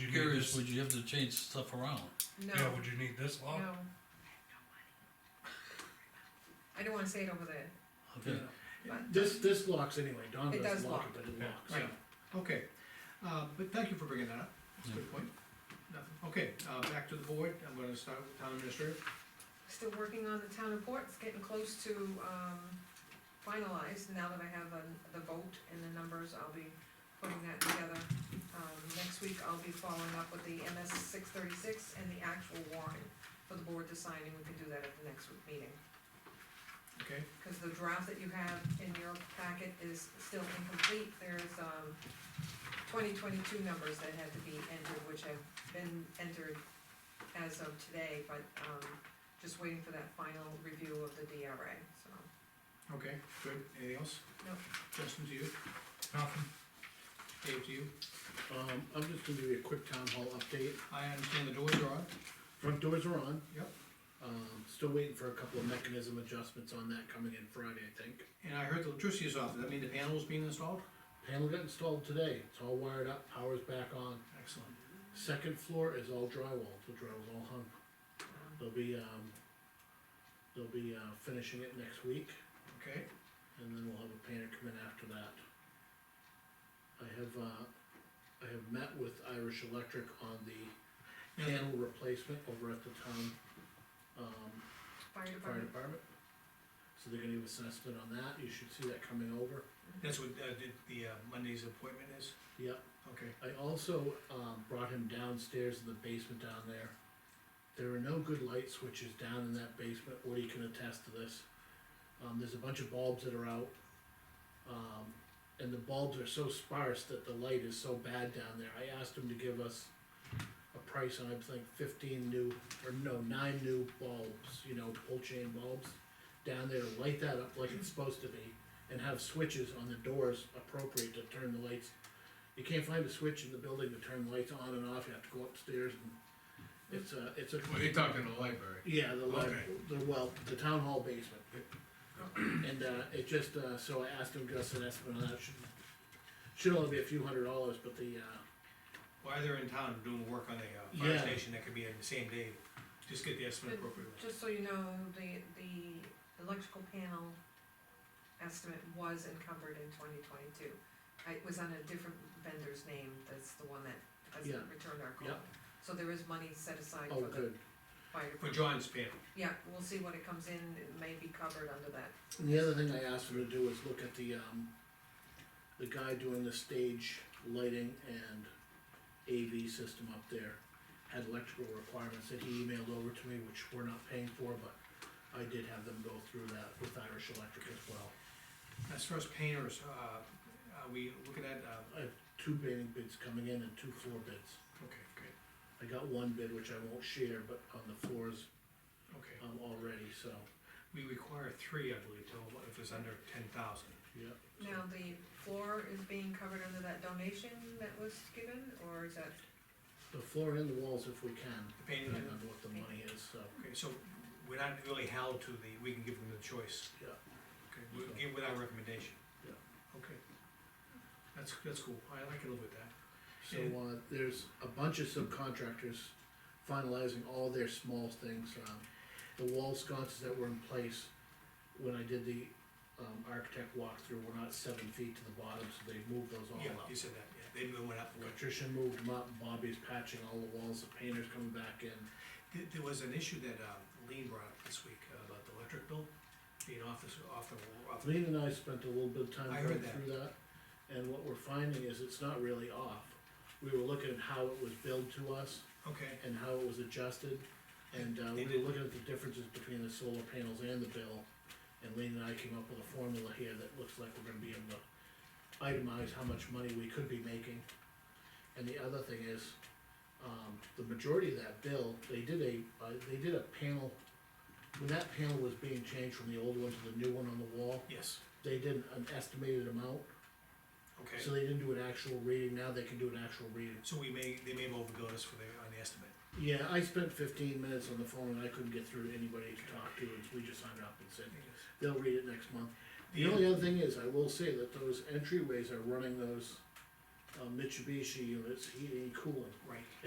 you need curious, this? would you have to change stuff around? No, Yeah, would you need this no. lock? I don't wanna say it over there. Okay, But- This, this locks anyway, Don It does doesn't lock lock. it, but it Yeah. locks. Right. Okay, uh, but thank you for bringing that up, that's a good point. Nothing. Okay, uh, back to the board, I'm gonna start with town administrator. Still working on the town report, it's getting close to, um, finalized, now that I have the- the vote and the numbers, I'll be putting that together. Um, next week, I'll be following up with the MS six thirty-six and the actual warrant for the board to sign, and we can do that at the next week meeting. Okay, Cause the draft that you have in your packet is still incomplete, there's, um, twenty twenty-two numbers that had to be entered, which have been entered as of today, but, um, just waiting for that final review of the DRA, so. okay, good, anything else? No. Justin, to you, Nothing? Dave, to you, Um, I'm just gonna give you a quick town hall update, I understand the doors are on, front doors are on, yep, um, still waiting for a couple of mechanism adjustments on that coming in Friday, I think. and I heard the electricity is off, does that mean the panel's being installed? Panel got installed today, it's all wired up, power's back on, Excellent, second floor is all drywall, the drywall's all hung. They'll be, um, they'll be, uh, finishing it next week, okay, and then we'll have a painter come in after that. I have, uh, I have met with Irish Electric on the Yeah. panel replacement over at the town, um, Fire fire department, department. So they're gonna give us an estimate on that, you should see that coming over, that's what, uh, the- the, uh, Monday's appointment is, yep. okay, I also, um, brought him downstairs in the basement down there. There are no good light switches down in that basement, Woody can attest to this. Um, there's a bunch of bulbs that are out. Um, and the bulbs are so sparse that the light is so bad down there, I asked him to give us a price on, I think, fifteen new, or no, nine new bulbs, you know, pull chain bulbs. Down there, to light that up like it's supposed to be, and have switches on the doors appropriate to turn the lights you can't find a switch in the building to turn lights on and off, you have to go upstairs and it's a, it's a. Well, you're talking the library. Yeah, the, li- Okay. the, well, the town hall basement. And, uh, it just, uh, so I asked him, Gus, an estimate on that, should, should only be a few hundred dollars, but the, uh, while they're in town doing work on a, uh, fire Yeah. station, that could be on the same day, just get the estimate Good. appropriately. just so you know, the, the electrical panel estimate was encumbered in twenty twenty-two. It was on a different vendor's name, that's the one that hasn't Yeah. returned our call. Yeah. So there is money set aside oh, for the good. fire For John's panel, Yeah, we'll see what it comes in, it may be covered under that. And the other thing I asked him to do is look at the, um, the guy doing the stage lighting and AV system up there. Had electrical requirements that he emailed over to me, which we're not paying for, but I did have them go through that with Irish Electric as well. as far as painters, uh, are we looking at, uh, I have two painting bids coming in and two floor bids. okay, good, I got one bid which I won't share, but on the floors, okay. um, already, so, We require three, I believe, total, if it's under ten thousand. yeah. so- Now, the floor is being covered under that donation that was given, or is that, The floor and the walls if we can, The painting, depending on what the money is, so, okay, so we're not really held to the, we can give them the choice. yeah. Okay, we'll give with our recommendation. Yeah. Okay. That's, that's cool, I, I can live with that. So, And- uh, there's a bunch of subcontractors finalizing all their small things, um, the wall sconces that were in place when I did the, um, architect walkthrough were not seven feet to the bottom, so they moved those all Yeah, up. you said that, yeah, they went up. Electrician moved them up, Bobby's patching all the walls, the painter's coming back in, There, there was an issue that, um, Lean brought up this week uh, about the electric bill, being off the, off the, off the, Lean and I spent a little bit of time I going heard that. through that, and what we're finding is it's not really off. We were looking at how it was billed to us, okay, and how it was adjusted. And uh, we They did- were looking at the differences between the solar panels and the bill. And Lean and I came up with a formula here that looks like we're gonna be able to itemize how much money we could be making. And the other thing is, um, the majority of that bill, they did a, uh, they did a panel, when that panel was being changed from the old one to the new one on the wall, yes, they did an estimated amount. So okay. they didn't do an actual reading, now they can do an actual reading. So we may, they may have overbilled us for the, on the estimate. Yeah, I spent fifteen minutes on the phone and I couldn't get through to anybody to talk to, and we just hung up and said, they'll read it next month. The Yeah. only other thing is, I will say that those entryways are running those uh, Mitsubishi units, heating and cooling. Right,